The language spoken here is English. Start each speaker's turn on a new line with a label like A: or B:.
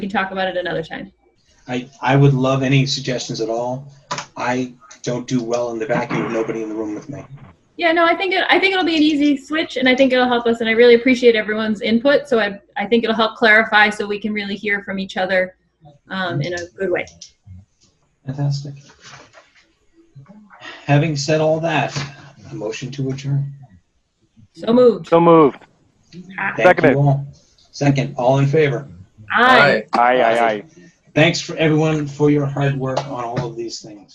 A: can talk about it another time.
B: I, I would love any suggestions at all. I don't do well in the vacuum with nobody in the room with me.
A: Yeah, no, I think it, I think it'll be an easy switch, and I think it'll help us. And I really appreciate everyone's input. So I I think it'll help clarify, so we can really hear from each other, um, in a good way.
B: Fantastic. Having said all that, a motion to adjourn.
A: So moved.
C: So moved.
B: Thank
C: Seconded.
B: you all. Second, all in favor.
A: Aye.
C: Aye, aye, aye.
B: Thanks for everyone for your hard work on all of these things.